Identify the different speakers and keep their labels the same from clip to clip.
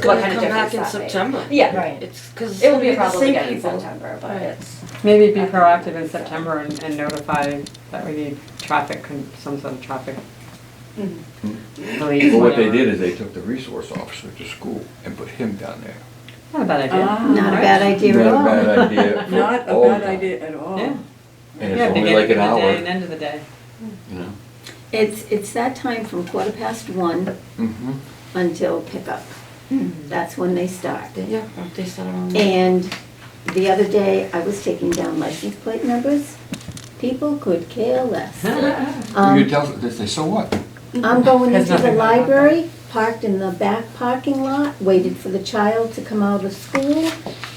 Speaker 1: gonna
Speaker 2: What kind of
Speaker 1: come back
Speaker 2: difference
Speaker 1: in
Speaker 2: that made?
Speaker 1: September.
Speaker 2: Yeah,
Speaker 3: Right.
Speaker 1: It's, cause
Speaker 2: it will
Speaker 1: it'll
Speaker 2: be
Speaker 1: be
Speaker 2: a
Speaker 1: the
Speaker 2: problem
Speaker 1: same
Speaker 2: again in
Speaker 1: people.
Speaker 2: September, but
Speaker 1: Right.
Speaker 2: it's,
Speaker 4: Maybe be proactive in September and and notify that we need traffic, con- some sort of traffic
Speaker 2: Mhm.
Speaker 4: relief.
Speaker 5: But Mm-hmm. what they
Speaker 4: whatever.
Speaker 5: did is they took the resource officer to school and put him down there.
Speaker 4: Not a bad idea.
Speaker 1: Ah.
Speaker 3: Not a bad idea at all.
Speaker 5: Not a bad idea. for
Speaker 1: Not a
Speaker 5: all
Speaker 1: bad
Speaker 5: of them.
Speaker 1: idea at all.
Speaker 4: Yeah.
Speaker 5: And
Speaker 4: Yeah,
Speaker 5: it's only
Speaker 4: beginning of
Speaker 5: like an
Speaker 4: the day and
Speaker 5: hour,
Speaker 4: end of the day.
Speaker 5: you know?
Speaker 3: It's, it's that time from quarter past one
Speaker 5: Mm-hmm.
Speaker 3: until pickup. That's when they start.
Speaker 1: Yeah, aren't they set around?
Speaker 3: And the other day, I was taking down license plate numbers. People could care less. Um,
Speaker 5: You tell, they say, so what?
Speaker 3: I'm going
Speaker 4: Has
Speaker 3: into the
Speaker 4: nothing gone on.
Speaker 3: library, parked in the back parking lot, waited for the child to come out of school,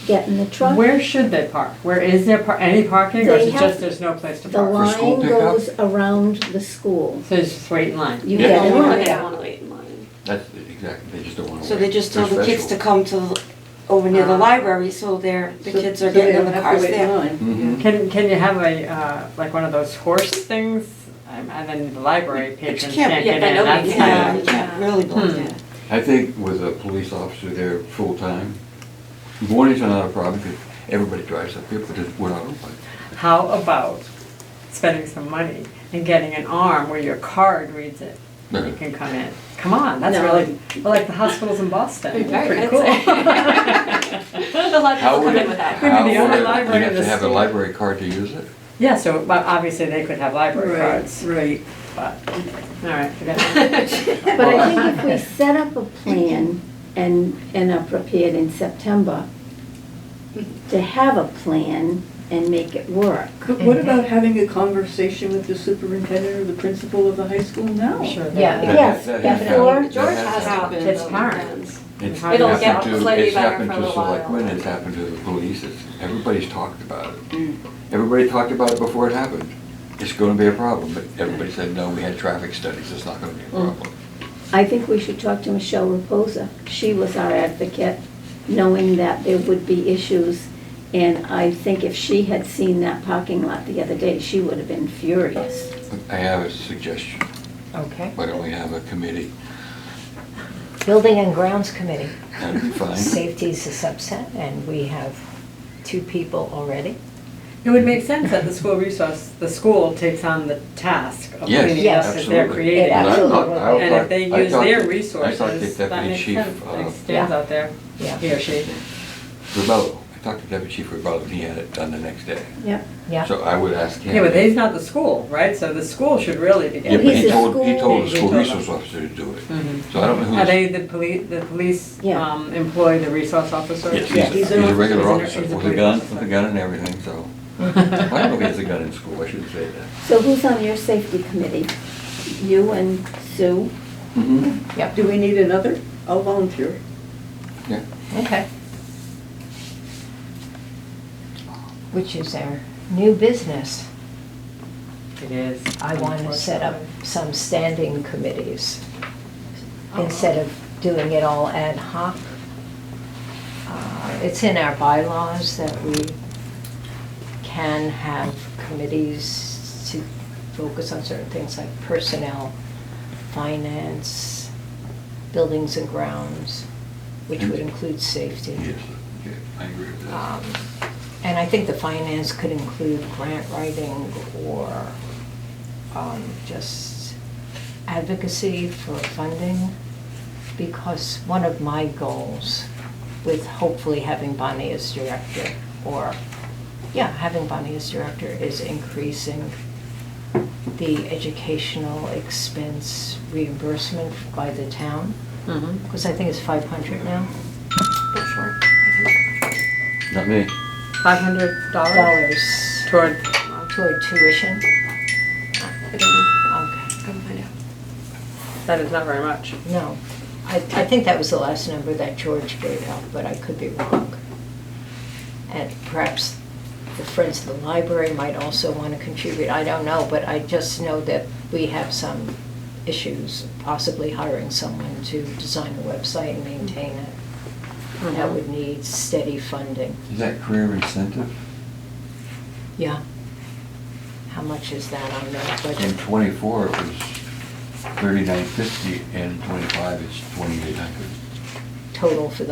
Speaker 3: get in the truck.
Speaker 4: Where should they park? Where is there par, any parking or
Speaker 3: They
Speaker 4: is it
Speaker 3: have-
Speaker 4: just there's no place to
Speaker 3: The
Speaker 4: park?
Speaker 5: For school
Speaker 3: line
Speaker 5: pickup?
Speaker 3: goes around the school.
Speaker 4: So it's just wait in line.
Speaker 3: You
Speaker 5: Yeah.
Speaker 3: get
Speaker 1: Oh,
Speaker 3: in line.
Speaker 2: Yeah.
Speaker 1: wanna wait in line.
Speaker 5: That's, exactly, they just don't wanna.
Speaker 2: so
Speaker 5: wait.
Speaker 2: they just tell
Speaker 5: They're
Speaker 2: the kids to
Speaker 5: special.
Speaker 2: come to, the- over near the
Speaker 4: Ah.
Speaker 2: library, so they're, the kids are getting in the cars there.
Speaker 5: Mhm.
Speaker 4: Can, can you have a, uh, like one of those horse things? Um, And then the library
Speaker 2: But you
Speaker 4: patrons
Speaker 2: can't,
Speaker 4: can't
Speaker 2: yeah,
Speaker 4: get
Speaker 2: I
Speaker 4: in,
Speaker 2: know,
Speaker 4: that's
Speaker 2: you
Speaker 4: not.
Speaker 2: can't, you can't really block it.
Speaker 5: I think with a police officer there full-time, mornings are not a problem, because everybody drives up here, but it's- we're not open.
Speaker 4: How about spending some money and getting an arm where your card reads it? You
Speaker 5: Uh-huh.
Speaker 4: can come in. Come on, that's
Speaker 3: No.
Speaker 4: really, well, like the hospitals in Boston, pretty
Speaker 1: Very
Speaker 4: cool.
Speaker 1: A lot of
Speaker 5: How
Speaker 1: people
Speaker 5: would
Speaker 1: come
Speaker 5: it,
Speaker 1: in with that.
Speaker 4: Maybe
Speaker 5: how would
Speaker 4: the
Speaker 5: it, you
Speaker 4: only library
Speaker 5: have
Speaker 4: in
Speaker 5: to
Speaker 4: the
Speaker 5: have a
Speaker 4: state.
Speaker 5: library card to use it?
Speaker 4: Yeah, so, but obviously they could have library
Speaker 1: Right,
Speaker 4: cards,
Speaker 1: right.
Speaker 4: but, all right, forget it.
Speaker 3: But I think if we set up a plan and, and are prepared in September to have a plan and make it work.
Speaker 1: But what about having a conversation with the superintendent or the principal of the high school now?
Speaker 4: I'm sure they-
Speaker 6: Yeah.
Speaker 3: Yes,
Speaker 5: That- that has
Speaker 3: before-
Speaker 5: happened.
Speaker 2: George
Speaker 5: That
Speaker 2: has
Speaker 5: happened.
Speaker 2: happened.
Speaker 4: It's
Speaker 2: on
Speaker 4: hard.
Speaker 2: weekends.
Speaker 5: It's
Speaker 4: Hard to
Speaker 5: happened
Speaker 4: get
Speaker 5: to-
Speaker 2: slightly better for a
Speaker 5: It's happened to
Speaker 2: little
Speaker 5: selectmen,
Speaker 2: while.
Speaker 5: it's happened to the police, it's, everybody's talked about it.
Speaker 4: Mm.
Speaker 5: Everybody talked about it before it happened. It's gonna be a problem, but everybody said, no, we had traffic studies, it's not gonna
Speaker 4: Mm.
Speaker 5: be a problem.
Speaker 3: I think we should talk to Michelle Reposa. She was our advocate, knowing that there would be issues. And I think if she had seen that parking lot the other day, she would have been furious.
Speaker 5: I have a suggestion,
Speaker 6: Okay.
Speaker 5: why don't we have a committee?
Speaker 6: Building and Grounds Committee.
Speaker 5: That'd be fine.
Speaker 6: Safety is a subset, and we have two people already.
Speaker 4: It would make sense that the school resource, the school takes on the task of
Speaker 5: Yes,
Speaker 4: cleaning up that they're
Speaker 5: absolutely.
Speaker 4: creating.
Speaker 6: It absolutely would.
Speaker 4: And if they use their resources,
Speaker 5: I talked to
Speaker 4: that
Speaker 5: Deputy
Speaker 4: makes
Speaker 5: Chief,
Speaker 4: sense. It
Speaker 5: uh,
Speaker 4: stands out there,
Speaker 6: Yeah.
Speaker 4: he or she.
Speaker 5: Rebello, uh, I talked to Deputy Chief Rebello, and he had it done the next day.
Speaker 3: Yep.
Speaker 6: Yeah.
Speaker 5: So I would ask him.
Speaker 4: Yeah, but he's not the school, right? So the school should really be
Speaker 5: Yeah,
Speaker 4: getting.
Speaker 5: but
Speaker 3: He's
Speaker 5: he
Speaker 3: a
Speaker 5: told, he
Speaker 3: school-
Speaker 5: told the
Speaker 4: He
Speaker 5: school
Speaker 4: told
Speaker 5: resource Mm-hmm.
Speaker 4: them.
Speaker 5: officer to do it.
Speaker 4: Mhm.
Speaker 5: So I don't know who's.
Speaker 4: Are they the police, the police
Speaker 3: Yeah.
Speaker 4: um, employ the resource officer?
Speaker 5: Yes, he's a- he's a regular officer,
Speaker 4: he's a
Speaker 5: with a gun,
Speaker 4: police
Speaker 5: with a
Speaker 4: officer.
Speaker 5: gun and everything, so. I don't know if he has a gun in school, I shouldn't say that.
Speaker 3: So who's on your safety committee? You and Sue?
Speaker 5: Mhm.
Speaker 6: Yep,
Speaker 1: Do we need another? I'll volunteer.
Speaker 5: Yeah.
Speaker 6: okay. Which is our new business.
Speaker 4: It is.
Speaker 6: I want to set up some standing committees instead of doing it all ad hoc. Uh, It's in our bylaws that we can have committees to focus on certain things like personnel, finance, buildings and grounds, which would include safety.
Speaker 5: Yes, okay, I agree with that.
Speaker 6: Um, And I think the finance could include grant writing or um, just advocacy for funding. Because one of my goals with hopefully having Bonnie as director, or, yeah, having Bonnie as director is increasing the educational expense reimbursement by the town,
Speaker 4: Mhm.
Speaker 6: because I think it's 500 now.
Speaker 5: Not me.
Speaker 4: Five hundred dollars
Speaker 6: Dollars.
Speaker 4: toward,
Speaker 6: Uh, toward tuition?
Speaker 2: I don't know,
Speaker 6: Okay,
Speaker 2: come find out.
Speaker 4: that is not very much.
Speaker 6: no. I, I think that was the last number that George gave out, but I could be wrong. And perhaps the Friends of the Library might also want to contribute, I don't know, but I just know that we have some issues, possibly hiring someone to design the website and maintain it. That
Speaker 4: Mhm.
Speaker 6: would need steady funding.
Speaker 5: Is that career incentive?
Speaker 6: Yeah. How much is that on that budget?
Speaker 5: In twenty-four, it was thirty-nine fifty, and twenty-five, it's twenty-eight hundred.
Speaker 6: total for the